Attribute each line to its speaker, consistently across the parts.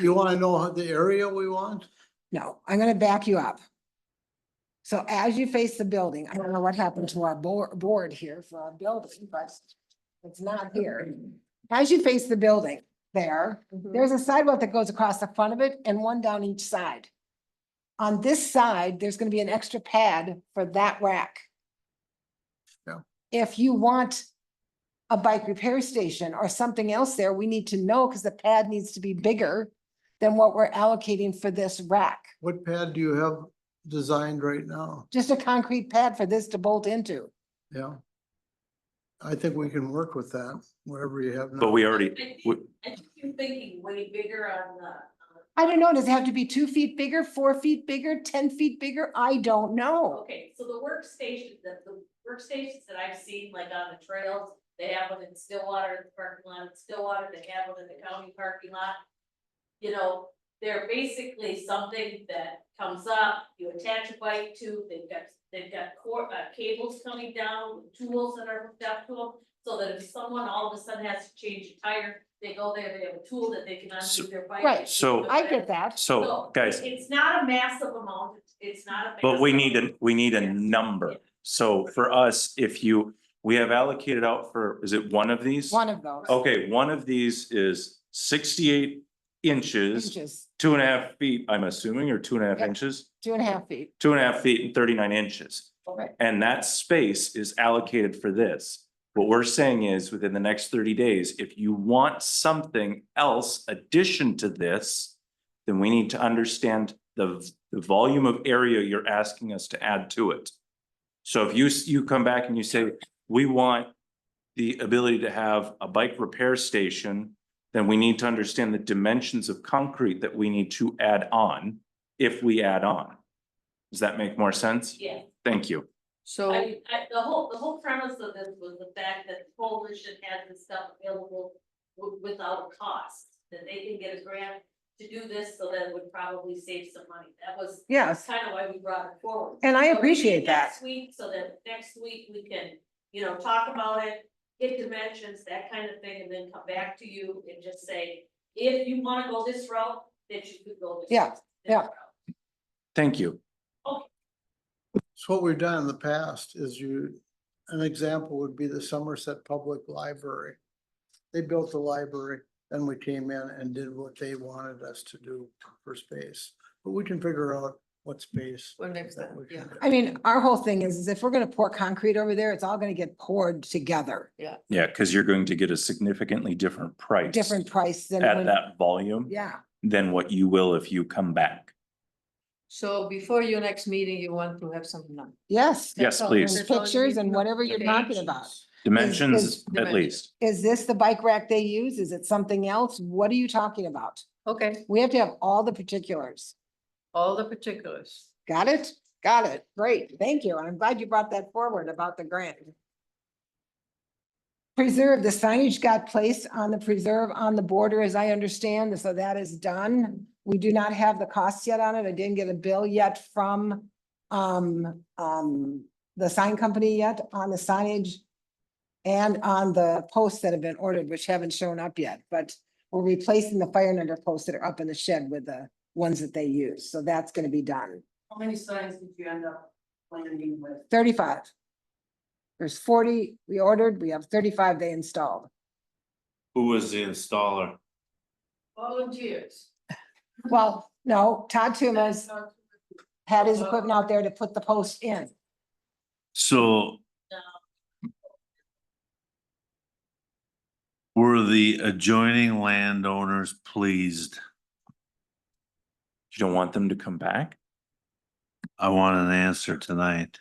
Speaker 1: You wanna know the area we want?
Speaker 2: No, I'm gonna back you up. So as you face the building, I don't know what happened to our board, board here for our building, but it's not here. As you face the building there, there's a sidewalk that goes across the front of it and one down each side. On this side, there's gonna be an extra pad for that rack.
Speaker 1: Yeah.
Speaker 2: If you want a bike repair station or something else there, we need to know, because the pad needs to be bigger than what we're allocating for this rack.
Speaker 1: What pad do you have designed right now?
Speaker 2: Just a concrete pad for this to bolt into.
Speaker 1: Yeah. I think we can work with that, whatever you have.
Speaker 3: But
Speaker 1: now.
Speaker 3: we already,
Speaker 4: I think-
Speaker 3: we-
Speaker 4: I think you're thinking way bigger on the,
Speaker 2: I don't know, does it have to be two feet bigger, four feet bigger, ten feet bigger? I don't know.
Speaker 4: okay, so the workstation, the, the workstations that I've seen, like on the trails, they have one in Stillwater, in the parking lot in Stillwater, they have one in the county parking lot. You know, they're basically something that comes up, you attach a bike to, they've got, they've got core, uh, cables coming down, tools that are hooked up to them. So that if someone all of a sudden has to change a tire, they go there, they have a tool that they can
Speaker 3: So-
Speaker 4: undo their bike.
Speaker 2: Right.
Speaker 4: and do
Speaker 3: So-
Speaker 4: it
Speaker 2: I
Speaker 4: back.
Speaker 2: get that.
Speaker 3: so guys,
Speaker 4: It's not a massive amount, it's not a.
Speaker 3: but we need
Speaker 4: massive-
Speaker 3: a, we need a
Speaker 4: Yeah.
Speaker 3: number. So for us, if you, we have allocated out for, is it one of these?
Speaker 2: One of those.
Speaker 3: Okay, one of these is sixty-eight inches,
Speaker 2: Inches,
Speaker 3: two and a half feet, I'm assuming, or two and a half
Speaker 2: Yeah.
Speaker 3: inches?
Speaker 2: two and a half feet.
Speaker 3: Two and a half feet and thirty-nine inches.
Speaker 2: Right.
Speaker 3: And that space is allocated for this. What we're saying is, within the next thirty days, if you want something else addition to this, then we need to understand the, v- the volume of area you're asking us to add to it. So if you, s- you come back and you say, we want the ability to have a bike repair station, then we need to understand the dimensions of concrete that we need to add on, if we add on. Does that make more sense?
Speaker 4: Yeah,
Speaker 3: Thank you.
Speaker 4: I,
Speaker 5: So,
Speaker 4: mean, I, the whole, the whole premise of this was the fact that the coalition has this stuff available wi- without cost, that they can get a grant to do this, so that would probably save some money, that was
Speaker 2: Yes,
Speaker 4: kind of why we brought it forward.
Speaker 2: and I
Speaker 4: So we meet
Speaker 2: appreciate that.
Speaker 4: Next week, so that next week we can, you know, talk about it, get dimensions, that kind of thing, and then come back to you and just say, if you wanna go this route, then you could go this.
Speaker 2: Yeah,
Speaker 4: this
Speaker 2: yeah.
Speaker 4: route.
Speaker 3: Thank you.
Speaker 1: So what we've done in the past is you, an example would be the Somerset Public Library. They built the library, then we came in and did what they wanted us to do for space, but we can figure out what space.
Speaker 5: what makes
Speaker 1: that
Speaker 5: that,
Speaker 1: we
Speaker 5: yeah,
Speaker 1: can do.
Speaker 2: I mean, our whole thing is, is if we're gonna pour concrete over there, it's all gonna get poured together,
Speaker 3: Yeah, because you're going to get a significantly different price.
Speaker 2: different price than.
Speaker 3: At
Speaker 2: when-
Speaker 3: that volume
Speaker 2: Yeah,
Speaker 3: than what you will if you come back.
Speaker 5: so before your next meeting, you want to have some number.
Speaker 2: yes.
Speaker 3: Yes,
Speaker 5: That's all.
Speaker 3: please.
Speaker 5: That's all you
Speaker 2: Pictures
Speaker 5: need
Speaker 2: and
Speaker 5: to know.
Speaker 2: whatever you're talking about.
Speaker 3: Dimensions at
Speaker 5: dimension.
Speaker 3: least.
Speaker 2: Is this the bike rack they use? Is it something else? What are you talking about?
Speaker 5: Okay,
Speaker 2: We have to have all the particulars.
Speaker 5: all the particulars.
Speaker 2: Got it? Got it. Great. Thank you. I'm glad you brought that forward about the grant. Preserve, the signage got placed on the preserve on the border, as I understand, so that is done. We do not have the costs yet on it. I didn't get a bill yet from um, um, the sign company yet on the signage and on the posts that have been ordered, which haven't shown up yet, but we're replacing the fire and under posts that are up in the shed with the ones that they use. So that's gonna be done.
Speaker 6: How many signs did you end up landing with?
Speaker 2: thirty-five. There's forty we ordered, we have thirty-five they installed.
Speaker 7: Who was the installer?
Speaker 6: Volunteers.
Speaker 2: Well, no, Todd Tumas had his equipment out there to put the post in.
Speaker 7: So. Were the adjoining landowners pleased?
Speaker 3: You don't want them to come back?
Speaker 7: I want an answer tonight.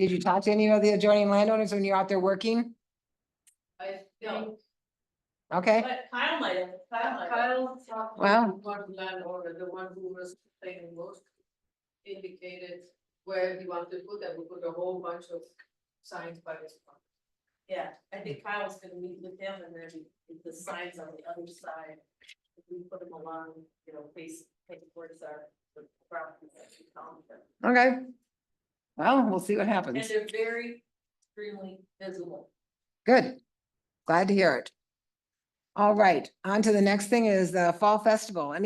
Speaker 2: Did you talk to any of the adjoining landowners when you're out there working?
Speaker 6: I
Speaker 4: No.
Speaker 6: think
Speaker 2: Okay,
Speaker 4: But Kyle might have, Kyle might have.
Speaker 6: Kyle talked
Speaker 2: Wow.
Speaker 6: to one landowner, the one who was paying most. Indicated where he wanted to put that, we put a whole bunch of signs by his. property.
Speaker 4: Yeah, I think Kyle's gonna meet with him and then if the signs on the other side. If we put them along, you know, face, face towards our, the property that we found them.
Speaker 2: okay. Well, we'll see what
Speaker 4: And
Speaker 2: happens.
Speaker 4: they're very extremely visible.
Speaker 2: Good. Glad to hear it. All right, on to the next thing is the Fall Festival. Any